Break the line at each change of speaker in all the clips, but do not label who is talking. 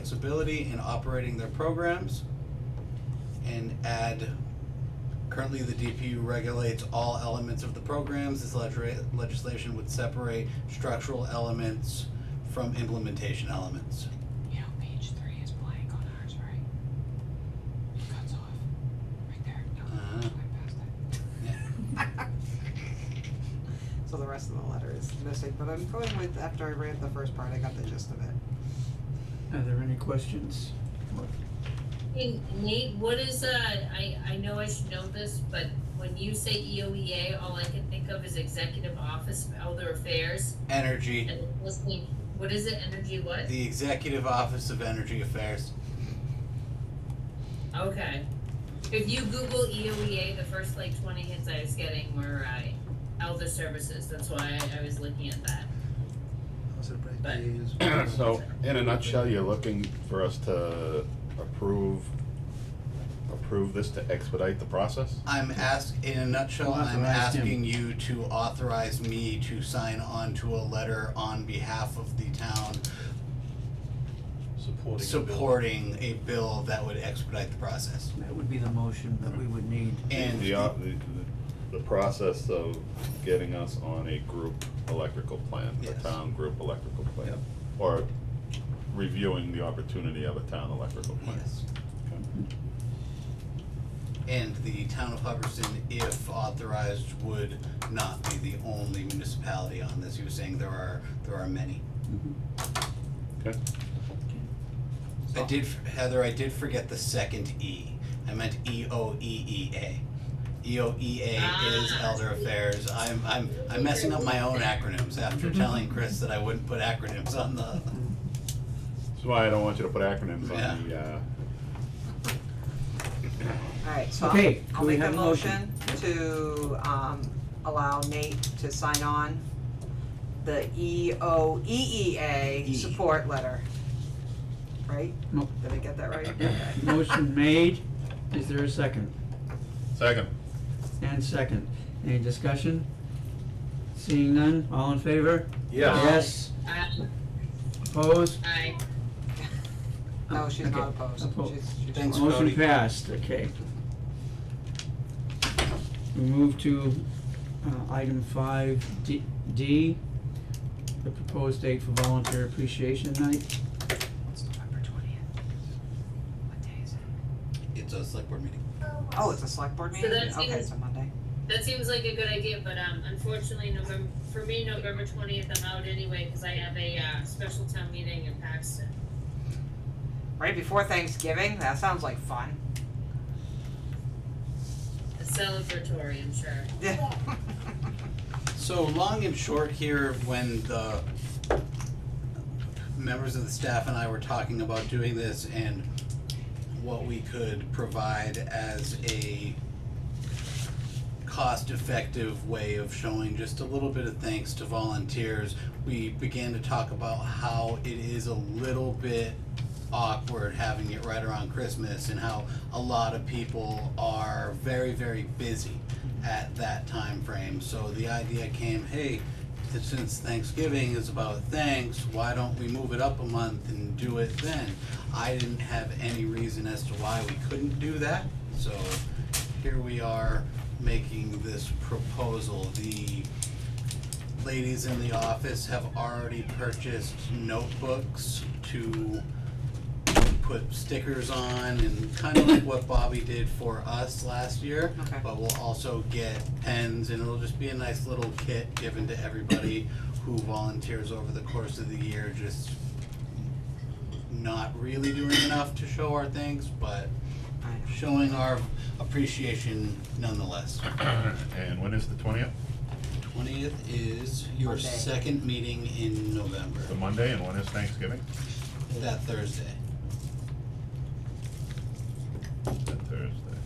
flexibility in operating their programs and add currently the DPU regulates all elements of the programs. This legisla- legislation would separate structural elements from implementation elements.
You know, page three is blank on ours, right? It cuts off, right there, no,
Uh-huh.
went past it.
So the rest of the letter is missing, but I'm going with, after I read the first part, I got the gist of it.
Are there any questions?
Hey, Nate, what is, uh, I, I know I should know this, but when you say E EOEA, all I can think of is Executive Office of Elder Affairs.
Energy,
And listening, what is it, energy what?
the Executive Office of Energy Affairs.
Okay. If you Google E EOEA, the first like twenty hits I was getting were, uh, Elder Services, that's why I, I was looking at that.
So, in a nutshell, you're looking for us to approve, approve this to expedite the process?
I'm ask, in a nutshell,
We'll
I'm
authorize him.
asking you to authorize me to sign on to a letter on behalf of the town
supporting. the bill.
supporting a bill that would expedite the process.
That would be the motion that we would need.
And
The, uh, the, the- the process of getting us on a group electrical plan, a
Yes.
town group electrical plan. Or reviewing the opportunity of a town electrical plan.
Yes. And the town of Hubbardston, if authorized, would not be the only municipality on this. He was saying there are, there are many.
Okay,
I did, Heather, I did forget the second E. I meant E O E E A. E O E A is
Ah.
Elder Affairs. I'm, I'm, I'm messing up my own acronyms after telling Chris that I wouldn't put acronyms on the,
that's why I don't want you to put acronyms on the, uh,
Alright, so I'll-
Okay,
I'll
do we
make a
have a motion?
motion to, um, allow Nate to sign on the E O E E A
E.
support letter. Right?
No.
Did I get that right?
Yeah,
Okay.
Motion made, is there a second?
second.
And second, any discussion? Seeing none, all in favor?
Yes.
Yes,
I,
opposed?
I,
No, she's not
Okay,
opposed,
opposed.
she's, she's.
Thanks,
for it.
Motion
Cody.
passed, okay. We move to uh, item five D, D, the proposed date for volunteer appreciation night.
It's November twentieth. What day is it?
it's a select board meeting.
Oh, it's a select board
So
meeting,
that's
okay,
even-
it's a Monday.
that seems like a good idea, but, um, unfortunately, November, for me, November twentieth, I'm out anyway, cause I have a, uh, special town meeting in Paxton.
Right before Thanksgiving, that sounds like fun.
A celebratory, I'm sure.
So long and short here, when the members of the staff and I were talking about doing this and what we could provide as a cost-effective way of showing just a little bit of thanks to volunteers, we began to talk about how it is a little bit awkward having it right around Christmas and how a lot of people are very, very busy at that time frame. So the idea came, hey, th- since Thanksgiving is about thanks, why don't we move it up a month and do it then? I didn't have any reason as to why we couldn't do that, so here we are making this proposal. The ladies in the office have already purchased notebooks to put stickers on and kind of like what Bobby did for us last year.
Okay.
But we'll also get pens and it'll just be a nice little kit given to everybody who volunteers over the course of the year, just not really doing enough to show our things, but
I know.
showing our appreciation nonetheless.
And when is the twentieth?
Twentieth is your
Monday.
second meeting in November,
The Monday, and when is Thanksgiving?
that Thursday.
The Thursday.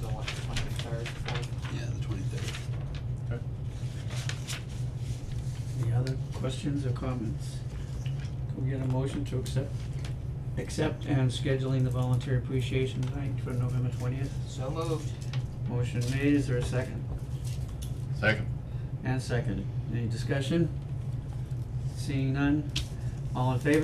So what, twenty-third, fourth?
Yeah, the twenty-third.
Any other questions or comments? Can we get a motion to accept, accept and scheduling the volunteer appreciation night for November twentieth?
So moved.
Motion made, is there a second?
Second.
And second, any discussion? Seeing none, all in favor?